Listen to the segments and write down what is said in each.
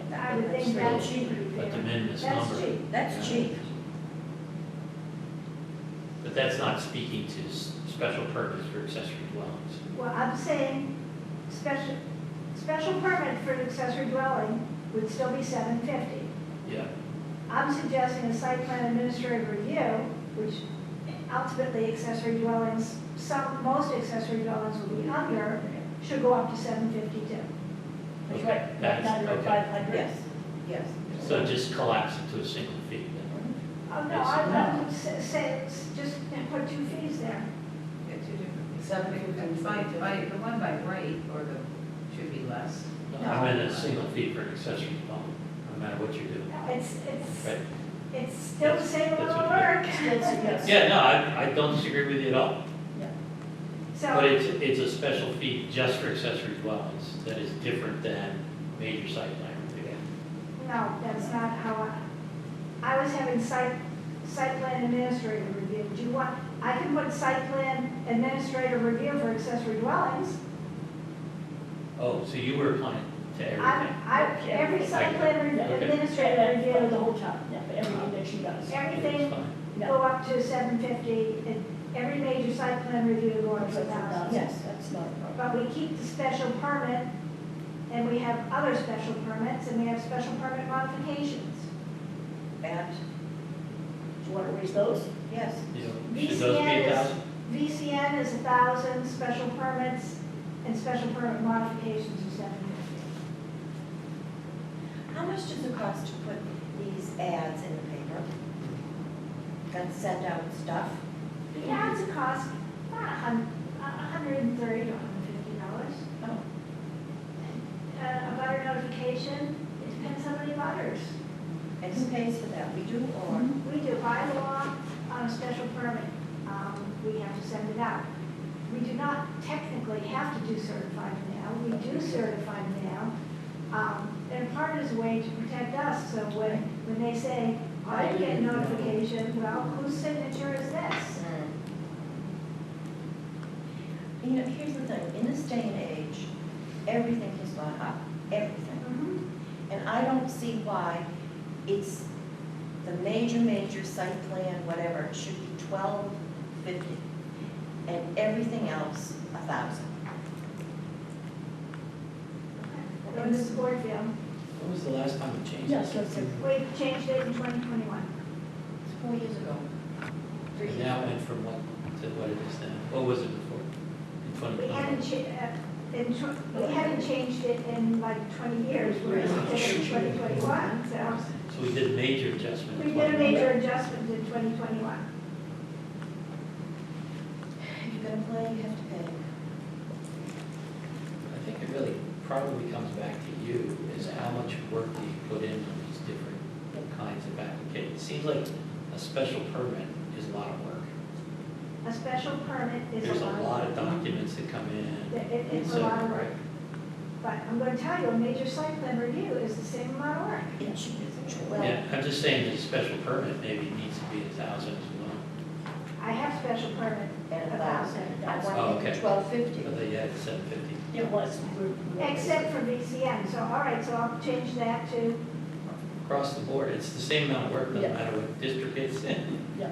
think that's cheap. But to amend this That's number. cheap. That's Yeah. cheap. But that's not speaking to s- special purpose for accessory dwellings. Well, I'm saying, special, special permit for an accessory dwelling would still be seven fifty. Yeah, I'm suggesting a site plan administrative review, which ultimately accessory dwellings, some, most accessory dwellings will be under, should go up to seven fifty-two. That's Okay, right, that right is- under okay. five hundred. Yes, yes. so just collapse it to a single fee then. Oh, no, I I would say, say it's just put two fees there. They're two different. Seven fifty. By, by, the one by right, or the, should be less. I meant a single fee for an accessory dwelling, no matter what you do. No, It's, it's, Right? it's still the same That's- that's amount of what work. Still suggests. Yeah, no, I, I don't disagree with you at all, but So, it's, it's a special fee just for accessory dwellings that is different than major site plan review. no, that's not how I, I was having site, site plan administrative review. Do you want, I can put site plan administrative review for accessory dwellings. Oh, so you were applying to I, everything? I, every site plan re- Yeah. Okay. administrative Yeah, yeah, the review, whole top, yeah, for everything that she does. It's everything fine. Yeah. go up to seven fifty, and every major site plan review go up to a thousand. Yes, that's not a problem. But we keep the special permit, and we have other special permits, and we have special permit modifications. That, Do you want to raise those? yes. You know, Should those be a VCN is- thousand? VCN is a thousand, special permits and special permit modifications are seven fifty. How much does it cost to put these ads in the paper? And send out stuff? Yeah, it's a cost, about a hun, a hundred and thirty to hundred and fifty dollars. Oh. Uh, a butter notification, it depends how many butters. And who pays for that? We do or? We do by law on a special permit, um, we have to send it out. We do not technically have to do certified mail, we do certified mail. Um, and part is a way to protect us, so when, when they say, I didn't get notification, well, whose signature is this? Mm. You know, here's the thing, in this day and age, everything has gone up, everything. Mhm. And I don't see why it's the major, major site plan, whatever, it should be twelve fifty. And everything else, a thousand. Go to Springfield, When was the last time we changed? Yes, this? that's it. we changed it in twenty twenty-one. It's four years ago. Three And years that ago. went from what to what it is now? What was it before? In twenty We haven't twenty? cha, uh, in tw- we haven't changed it in like twenty years, whereas we did it in twenty twenty-one, so. So we did a major adjustment. in We did a 2021. major adjustment in 2021. If you're gonna play, you have to pay. I think it really probably comes back to you, is how much work do you put in on these different kinds of applications? It seems like a special permit is a lot of work. A special permit There's is a lot of dollars. documents that come in. It- it- It's a So, lot of work, right. but I'm going to tell you, a major site plan review is the same amount of work. It should be twelve. Yeah, I'm just saying that a special permit maybe needs to be a thousand as well, I have special permit And a a thousand. thousand, I Oh, want okay. twelve fifty. but they had seven fifty. It was. we're- we're- except for VCN, so all right, so I'll change that to, Across the board, it's the same amount of work, doesn't Yeah. matter what district it's in. Yeah.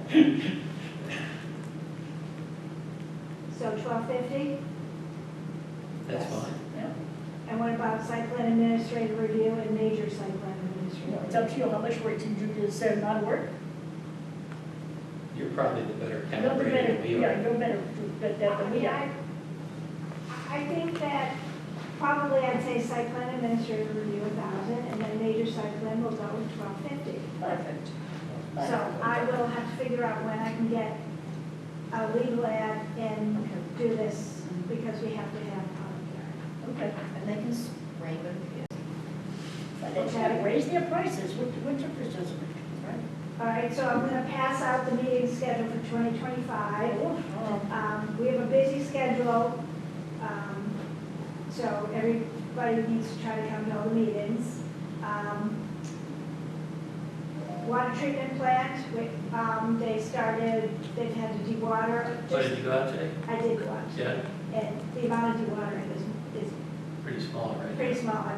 so 1250. That's Yes. fine. Yeah. And what about site plan administrative review and major site plan You know, administrative? It's up to you how much work you do, is there not work? You're probably the better You're the calibrator better, than we yeah, are. you're better at that I than mean, we are. I, I think that probably I'd say site plan administrative review a thousand, and then major site plan will go with twelve fifty. Perfect. So I will have to figure out when I can get a legal ad and do this, because we have to have public Okay. And they can spray them if But they gotta raise their prices, what, what difference does it make? hearing. All right, so I'm gonna pass out the meeting schedule for twenty twenty-five. 啊 Um, we have a busy schedule, um, so everybody needs to try to come to all the meetings. Um, Water treatment plant, we, um, they started, they've had to dewater, What did you go out today? I did go out, Oh, Yeah, and the amount of dewatering is, is pretty small, right? pretty small, I